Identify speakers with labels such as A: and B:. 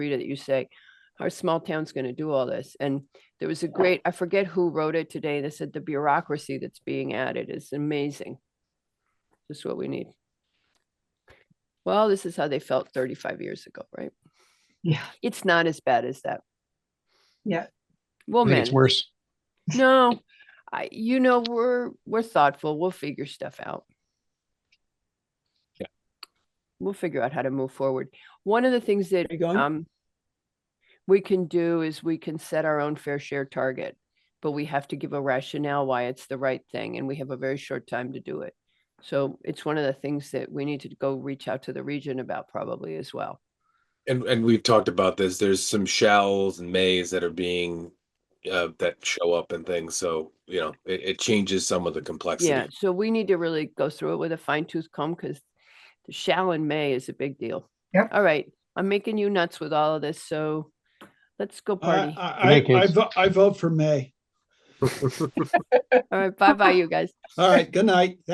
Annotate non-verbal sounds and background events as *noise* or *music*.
A: Rita, that you say, our small town's gonna do all this. And there was a great, I forget who wrote it today, that said the bureaucracy that's being added is amazing. Just what we need. Well, this is how they felt thirty-five years ago, right?
B: Yeah,
A: It's not as bad as that.
B: yeah.
A: We'll
C: I think it's
A: manage.
C: worse.
A: *laughs* No, I, you know, we're, we're thoughtful. We'll figure stuff out.
C: Yeah.
A: We'll figure out how to move forward. One of the things that
B: Are you
D: Oh,
B: going?
A: um, we can do is we can set our own fair share target, but we have to give a rationale why it's the right thing, and we have a very short time to do it. So it's one of the things that we need to go reach out to the region about probably as well.
D: And and we've talked about this. There's some shalls and mays that are being uh, that show up and things. So you know, it, it changes some of the complexity.
A: Yeah, so we need to really go through it with a fine tooth comb because the shall and may is a big deal.
B: Yep.
A: All right, I'm making you nuts with all of this, so let's go party.
E: I, I, I,
C: kids.
E: vo- I vote for May.
A: All right, bye-bye, you guys.
E: All right, good night.